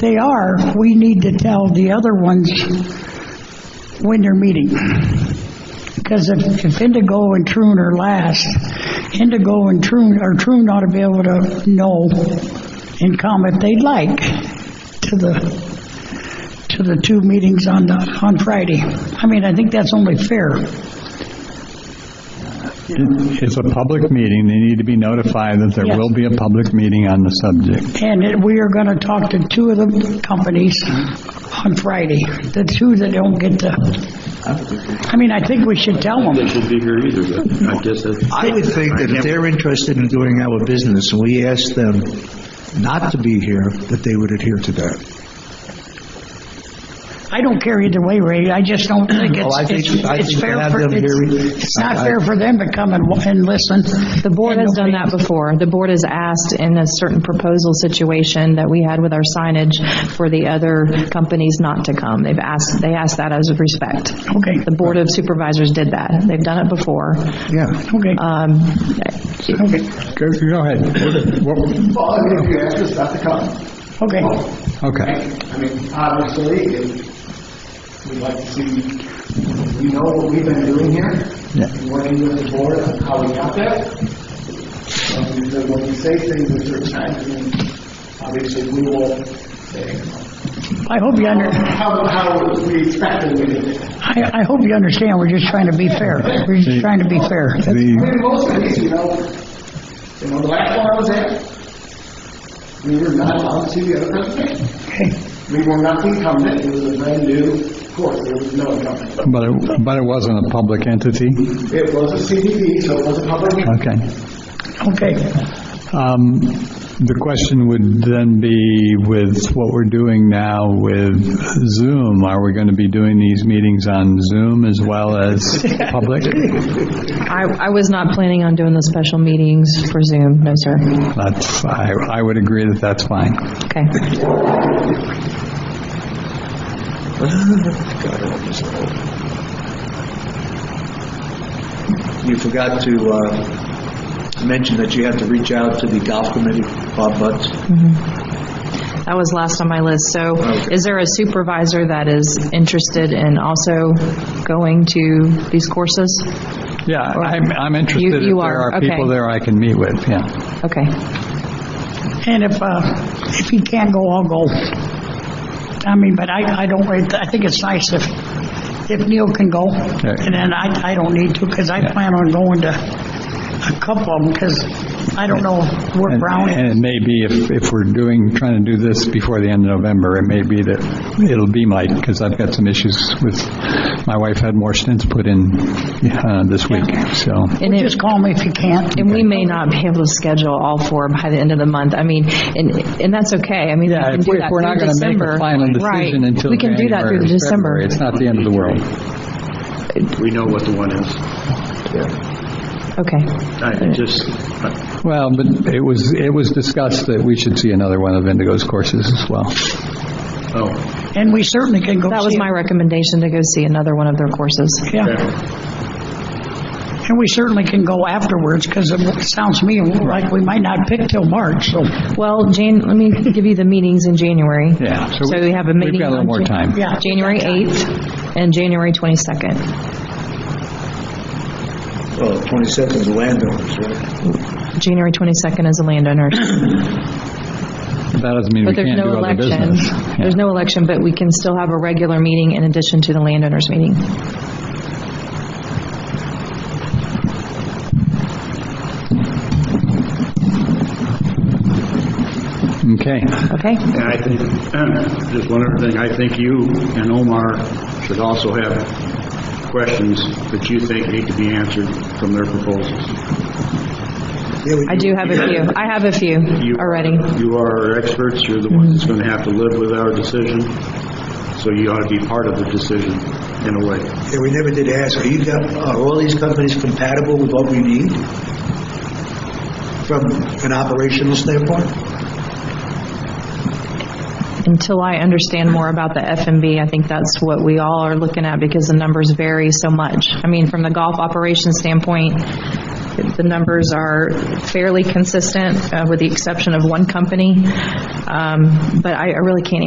they are, we need to tell the other ones when they're meeting. Because if if Indigo and Troon are last, Indigo and Troon, or Troon ought to be able to know and come if they'd like to the, to the two meetings on, the on Friday. I mean, I think that's only fair. It- It's a public meeting, they need to be notified that there Yes. will be a public meeting on the subject. And it- we are going to talk to two of the companies on Friday, the two that don't get to, I mean, I think we should tell them. They should be here either, but I guess that's, I would think that if they're interested in doing our business, and we ask them not to be here, that they would adhere to that. I don't care either way, Ray, I just don't think Well, it's, I think- it's I it's think fair have for, them here. it's it's not I- I- fair for them to come and, wa- and listen. The board has done that before. The board has asked in a certain proposal situation that we had with our signage for the other companies not to come. They've asked, they asked that as of respect. Okay, The Board of Supervisors did that. They've done it before. Yeah. okay, Um, okay, Go go ahead. What- Well, I mean, if you ask us not to come, okay. Okay. I mean, obviously, if we'd like to see, we know what we've been doing here, and working with the board on how we got there. Um, so When we say things at certain times, then obviously, we will say, I hope you under, how, how we expect them to do it. I, I hope you understand, we're just trying to be fair, we're just trying to be fair. I The- mean, most of these, you know, you know, the last one I was at, we were not allowed to see the other presentation. Okay, We were not incumbent, it was a brand new course, there was no incumbent. But it, but it wasn't a public entity? It was a CDD, so it was a public meeting. Okay. okay, Um, The question would then be with what we're doing now with Zoom, are we going to be doing these meetings on Zoom as well as public? I, I was not planning on doing the special meetings for Zoom, no, sir. That's, I, I would agree that that's fine. Okay. You forgot to uh, mention that you have to reach out to the golf committee, Bob Butts. That was last on my list. So is there a supervisor that is interested in also going to these courses? Yeah, I'm, I'm You- interested if you there are, are people okay. there I can meet with, yeah. Okay. and if, uh, if he can't go, I'll go. I mean, but I, I don't, I think it's nice if, if Neil can go, and then I, I don't need to, because I plan on going to a couple of them, because I don't know where And- Brown is. And it may be, if, if we're doing, trying to do this before the end of November, it may be that it'll be Mike, because I've got some issues with, my wife had more stints put in uh, this week, so. And it- Just call me if you can't. And we may not be able to schedule all four by the end of the month. I mean, and, and that's okay. I mean, we Yeah, can if do we- if that we're not through going to make December. a final Right. decision until We can do that January through or February, December. it's not the end of the world. we know what the one is. Okay. I just, Well, but it was, it was discussed that we should see another one of Indigo's courses as well. oh, And we certainly can go see. That was my recommendation to go see another one of their courses. Yeah. And we certainly can go afterwards, because it sounds to me like we might not pick till March, so, Well, Jan, let me give you the meetings in January. Yeah, so So we have a we've meeting. got a little on more Jan- time. yeah. January 8th and January 22nd. Well, 22nd is landowners, right? January 22nd is a landowner. That doesn't mean we But there's can't do no other election. business. Yeah. There's no election, but we can still have a regular meeting in addition to the landowners meeting. Okay. Okay? and I think, just one other thing, I think you and Omar should also have questions that you think need to be answered from their proposals. I do have a few. I have a few You- already. You are our experts, you're the one that's going to have to live with our decision, so you ought to be part of the decision in a way. Yeah, we never did ask, are you, got- are all these companies compatible with what we need? From an operational standpoint? Until I understand more about the FMB, I think that's what we all are looking at because the numbers vary so much. I mean, from the golf operation standpoint, the numbers are fairly consistent uh, with the exception of one company. Um, But I I really can't